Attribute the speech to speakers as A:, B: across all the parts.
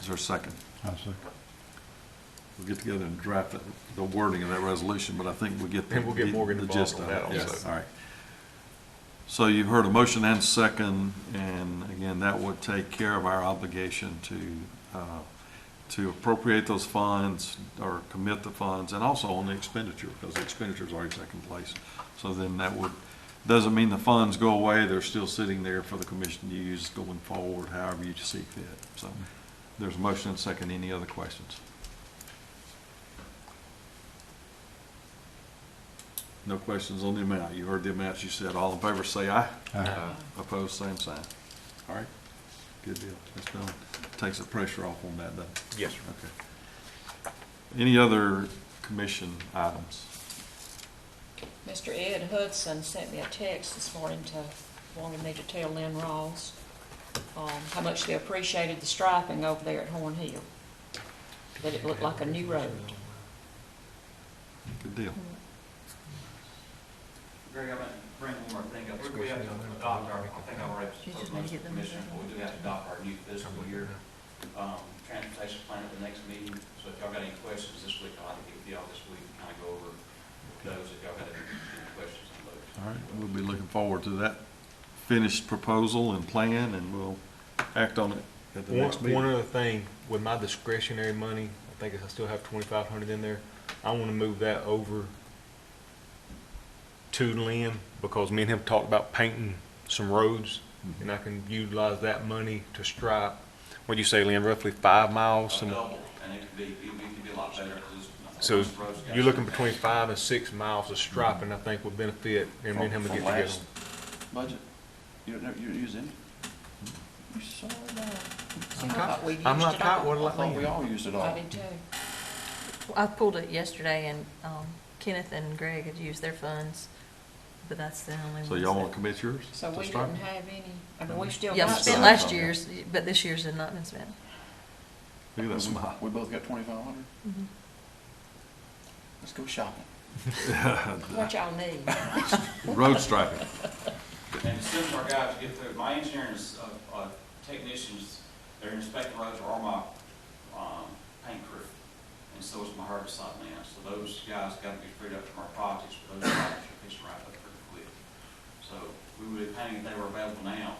A: Is there a second?
B: I'll second.
A: We'll get together and draft that- the wording of that resolution, but I think we'll get. the-
C: And we'll get Morgan
A: the
C: involved
A: gist
C: on
A: of
C: that
A: it.
C: also.
A: Yes, all right. So you've heard a motion and second, and again, that would take care of our obligation to, uh, to appropriate those funds or commit the funds, and also on the expenditure, because the expenditure's already taken place. So then that would, doesn't mean the funds go away, they're still sitting there for the commission to use going forward, however you see fit. So there's a motion and second, any other questions? No questions on the amount. You heard the amounts you said. All in favor, say aye.
B: Aye.
C: Uh,
A: Opposed, same sign. All right, good deal. That's done. Takes the pressure off on that, doesn't it?
C: Yes, sir.
A: Okay. Any other commission items?
D: Mr. Ed Hudson sent me a text this morning to, wanted me to tell Lynn Rawls, um, how much they appreciated the striping over there at Horn Hill. That it looked like a new road.
A: Good deal.
E: Greg, I'm gonna bring one more thing up. We- We have to adopt our, I think I already told most of the commissioners, but we do have to adopt our new fiscal year, um, transportation plan at the next meeting. So if y'all got any questions this week, I'll have to get with y'all this week and kind of go over those if y'all got any any questions on those.
A: All right, we'll be looking forward to that finished proposal and plan, and we'll act on it at the
C: One,
A: next meeting.
C: one other thing, with my discretionary money, I think I still have twenty-five hundred in there, I wanna move that over to Lynn, because me and him talked about painting some roads, and I can utilize that money to stripe, what'd you say, Lynn, roughly five miles?
E: A
C: some-
E: Uh, double, and it could be, it could be a lot better. 'cause it's-
C: So
E: roads got
C: you're looking
E: some-
C: between five and six miles of striping, I think would benefit, and me and him would get
F: From- from
C: together.
F: last Budget, you don't, you use any? You saw that?
D: See, I thought we used
C: I'm not
D: it all.
C: caught, what
F: I thought we
C: like,
F: all used it all.
D: I did too.
G: I pulled it yesterday and um, Kenneth and Greg had used their funds, but that's the only one.
A: So y'all want to commit yours?
D: So
A: to
D: we
A: start?
D: didn't have any, I mean, we still
G: Yeah, we
D: got
G: spent
D: some.
G: last year's, but this year's had not been spent.
A: Look at that smile.
F: We both got twenty-five hundred? Let's go shopping.
D: What y'all need?
A: Road striping.
E: And as soon as our guys get through, my engineers, uh, uh, technicians, they're inspecting roads are all my, um, paint crew. And so is my herbicide man, so those guys gotta be freed up from our projects, but those projects are fixing right up pretty quick. So we would have painted if they were available now,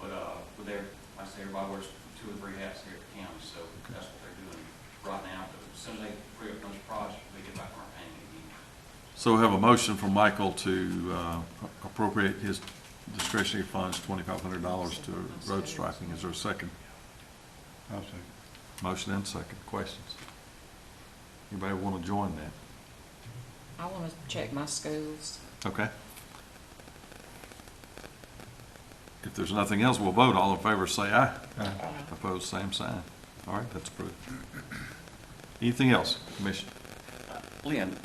E: but, uh, with their, like I say, everybody wears two or three hats here at the county, so that's what they're doing right now. But as soon as they free up those projects, we get back on our painting again.
A: So we have a motion from Michael to uh, appropriate his discretionary funds, twenty-five hundred dollars to road striping. Is there a second?
B: I'll second.
A: Motion and second. Questions? Anybody want to join that?
D: I wanna check my schools.
A: Okay. If there's nothing else, we'll vote. All in favor, say aye.
D: Uh,
B: Aye.
A: Opposed, same sign. All right, that's approved. Anything else, Commissioner?
F: Lynn,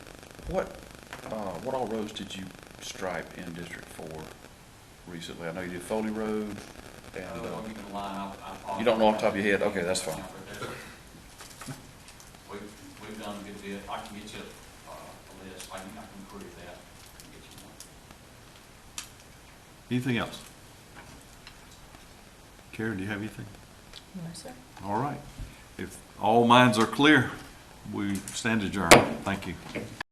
F: what, uh, what all roads did you stripe in District Four recently? I know you did Foley Road and,
E: Oh,
F: uh,
E: well, you can line up, I apologize.
F: You don't know off the top of your head? Okay, that's fine.
E: We've, we've done a good bit, I can get you uh, a list, I can, I can query that, and get you one.
A: Anything else? Karen, do you have anything?
G: No, sir.
A: All right. If all minds are clear, we stand adjourned. Thank you.